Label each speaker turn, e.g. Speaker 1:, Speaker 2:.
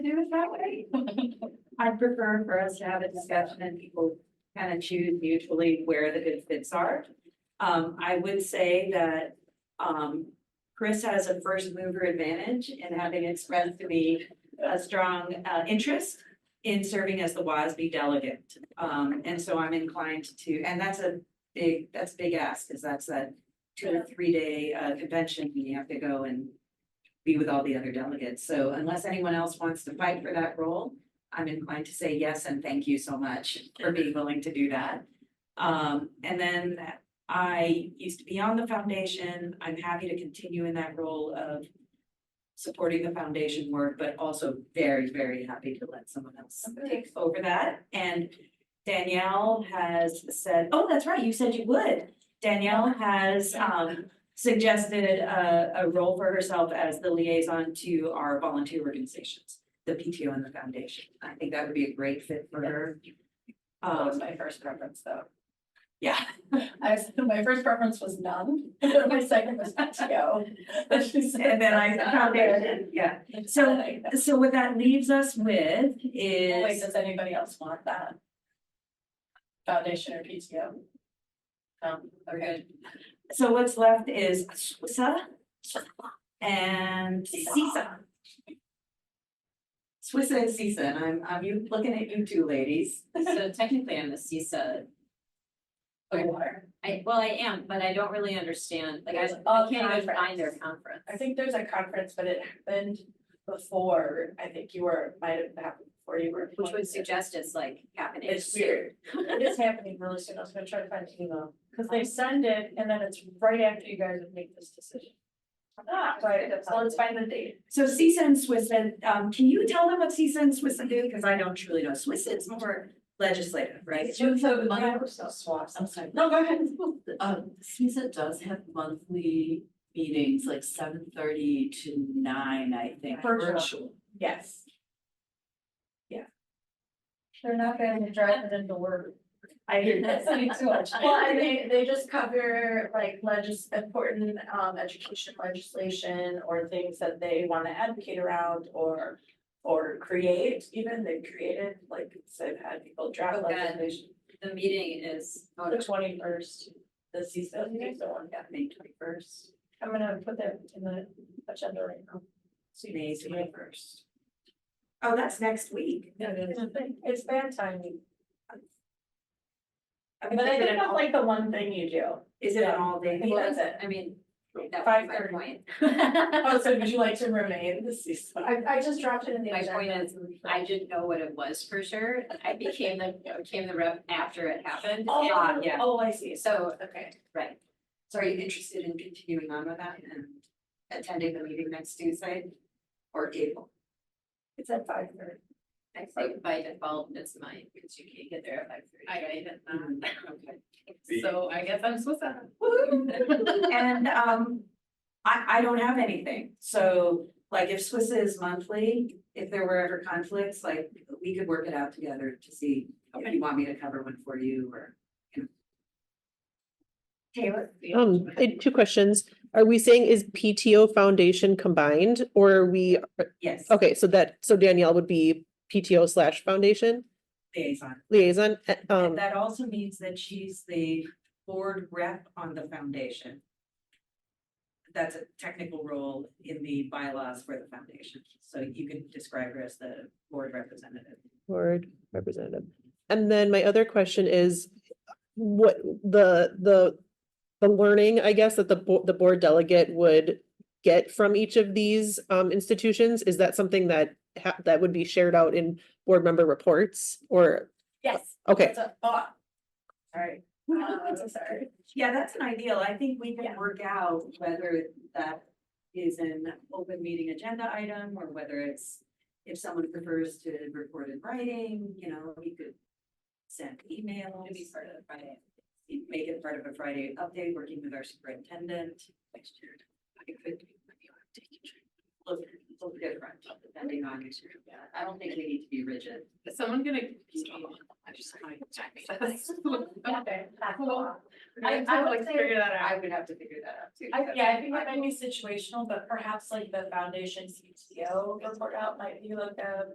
Speaker 1: to do it that way. I'd prefer for us to have a discussion and people kind of choose mutually where the good fits are. Um, I would say that, um, Chris has a first mover advantage in having expressed to me a strong, uh, interest in serving as the WASB delegate. Um, and so I'm inclined to, and that's a big, that's a big ask, because that's a two or three day, uh, convention, you have to go and be with all the other delegates. So unless anyone else wants to fight for that role, I'm inclined to say yes and thank you so much for being willing to do that. Um, and then I used to be on the foundation. I'm happy to continue in that role of supporting the foundation work, but also very, very happy to let someone else take over that. And Danielle has said, oh, that's right, you said you would. Danielle has, um, suggested a, a role for herself as the liaison to our volunteer organizations, the PTO and the foundation. I think that would be a great fit for her.
Speaker 2: That was
Speaker 1: Um,
Speaker 2: Oh, my first preference, though.
Speaker 1: yeah.
Speaker 2: I was, my first preference was none, my second was PTO.
Speaker 1: And then I found it, yeah. So, so what that leaves us with
Speaker 2: Wait,
Speaker 1: is,
Speaker 2: does anybody else want that? Foundation or PTO? Um, okay,
Speaker 1: so what's left is Swissa and Sisa. Swissa and Sisa, and I'm, I'm you- looking at you two ladies.
Speaker 3: So technically I'm a CISA,
Speaker 2: you are.
Speaker 3: I, well, I am, but I don't really understand, like I,
Speaker 2: There's
Speaker 3: I
Speaker 2: a
Speaker 3: can't even find their
Speaker 2: conference.
Speaker 3: conference.
Speaker 2: I think there's a conference, but it happened before, I think you were, might have happened before you were.
Speaker 3: Which would suggest it's like happening.
Speaker 2: It's weird. It is happening really soon. I was gonna try to find the email, because they send it and then it's right after you guys have made this decision. Ah, right, so let's find the date.
Speaker 1: So Sisa and Swissa, um, can you tell them what Sisa and Swissa do? Because I don't truly know. Swissa is more legislative, right?
Speaker 4: So my,
Speaker 2: swaps.
Speaker 4: I'm sorry,
Speaker 2: No, go ahead.
Speaker 4: um, CISA does have monthly meetings, like seven thirty to nine, I think.
Speaker 2: Virtual. Yes. Yeah. They're not gonna drive it into work.
Speaker 1: I hear that.
Speaker 2: That's too much. Well, and they, they just cover like legis, important, um, education legislation or things that they wanna advocate around or. Or create, even they've created, like, so I've had people draft
Speaker 3: Oh, God.
Speaker 2: legislation,
Speaker 3: The meeting is, oh,
Speaker 2: the
Speaker 3: no.
Speaker 2: twenty first, the CISA, meeting, the one, yeah, May twenty first. I'm gonna put that in the agenda right now.
Speaker 1: May
Speaker 2: first.
Speaker 1: Oh, that's next week.
Speaker 2: It's bad timing,
Speaker 1: I mean,
Speaker 2: but I
Speaker 1: is it
Speaker 2: think
Speaker 1: an
Speaker 2: that's
Speaker 1: all-
Speaker 2: like the one thing you do.
Speaker 1: Is it an all day?
Speaker 2: Yeah.
Speaker 3: well, that's- I mean, that was
Speaker 2: Five
Speaker 3: my
Speaker 2: thirty.
Speaker 3: point.
Speaker 2: Oh, so would you like to remain the CISA? I, I just dropped it in
Speaker 3: My point is, I didn't know what it was for sure. I became the, became the rep after it happened.
Speaker 2: Oh,
Speaker 3: and-
Speaker 2: yeah, oh, I see,
Speaker 3: So,
Speaker 2: okay.
Speaker 3: right,
Speaker 1: So are you interested in continuing on with that and attending the meeting next Tuesday? Or April?
Speaker 2: It's at five thirty.
Speaker 3: I think by default it's mine, because you can't get there at five thirty. I didn't,
Speaker 5: The-
Speaker 3: So I guess I'm supposed to.
Speaker 1: And um, I I don't have anything, so like if Swiss is monthly, if there were ever conflicts, like we could work it out together to see. If you want me to cover one for you or. you know. Taylor?
Speaker 6: Um, I had two questions. Are we saying is PTO foundation combined or are we,
Speaker 1: Yes,
Speaker 6: okay, so that, so Danielle would be PTO slash foundation
Speaker 1: liaison.
Speaker 6: liaison, eh,
Speaker 1: And
Speaker 6: um,
Speaker 1: that also means that she's the board rep on the foundation. That's a technical role in the bylaws for the foundation, so you can describe her as the board representative.
Speaker 6: board representative. And then my other question is what the, the, the learning, I guess, that the bo- the board delegate would get from each of these, um, institutions, is that something that ha- that would be shared out in board member reports or,
Speaker 2: Yes.
Speaker 6: okay,
Speaker 2: It's a thought. Sorry. Uh, sorry.
Speaker 1: Yeah, that's an ideal. I think we can
Speaker 2: Yeah.
Speaker 1: work out whether that is an open meeting agenda item or whether it's. If someone prefers to report in writing, you know, we could send emails.
Speaker 3: Maybe part of the Friday.
Speaker 1: Make it part of a Friday update, working with our superintendent. Next year. It could be maybe I'll take a check. Look, look different, depending on. yeah, I don't think we need to be rigid.
Speaker 3: Is someone gonna?
Speaker 1: I just.
Speaker 2: Okay.
Speaker 3: I, I would say,
Speaker 2: that
Speaker 1: I would have to figure that out too.
Speaker 2: I, yeah, I think that might be situational, but perhaps like the foundation CTO report out might be like a